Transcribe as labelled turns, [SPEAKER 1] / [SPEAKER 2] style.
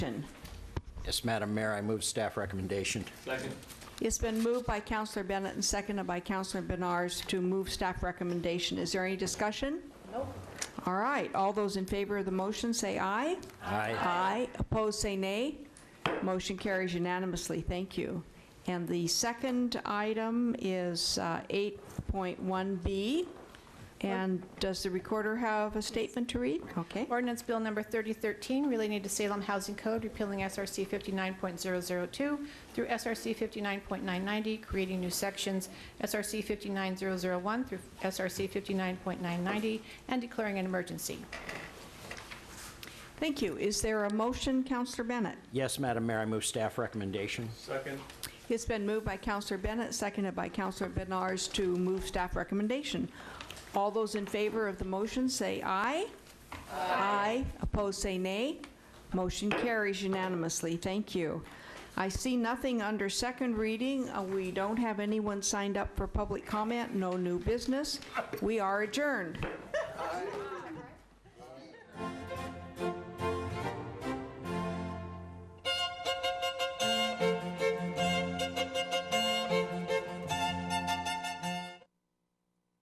[SPEAKER 1] Yes, Madam Mayor, I move staff recommendation.
[SPEAKER 2] Second.
[SPEAKER 3] It's been moved by Counselor Bennett and seconded by Counselor Benars to move staff recommendation. Is there any discussion? Nope. All right, all those in favor of the motion, say aye.
[SPEAKER 1] Aye.
[SPEAKER 3] Aye. Opposed, say nay. Motion carries unanimously. Thank you. And the second item is uh, 8.1B. And does the recorder have a statement to read? Okay.
[SPEAKER 4] Ordinance Bill Number 3013 relating to Salem Housing Code, repealing SRC 59.002 through SRC 59.990, creating new sections, SRC 59001 through SRC 59.990, and declaring an emergency.
[SPEAKER 3] Thank you. Is there a motion, Counselor Bennett?
[SPEAKER 1] Yes, Madam Mayor, I move staff recommendation.
[SPEAKER 2] Second.
[SPEAKER 3] It's been moved by Counselor Bennett, seconded by Counselor Benars to move staff recommendation. All those in favor of the motion, say aye. Aye. Opposed, say nay. Motion carries unanimously. Thank you. I see nothing under second reading. Uh, We don't have anyone signed up for public comment, no new business. We are adjourned.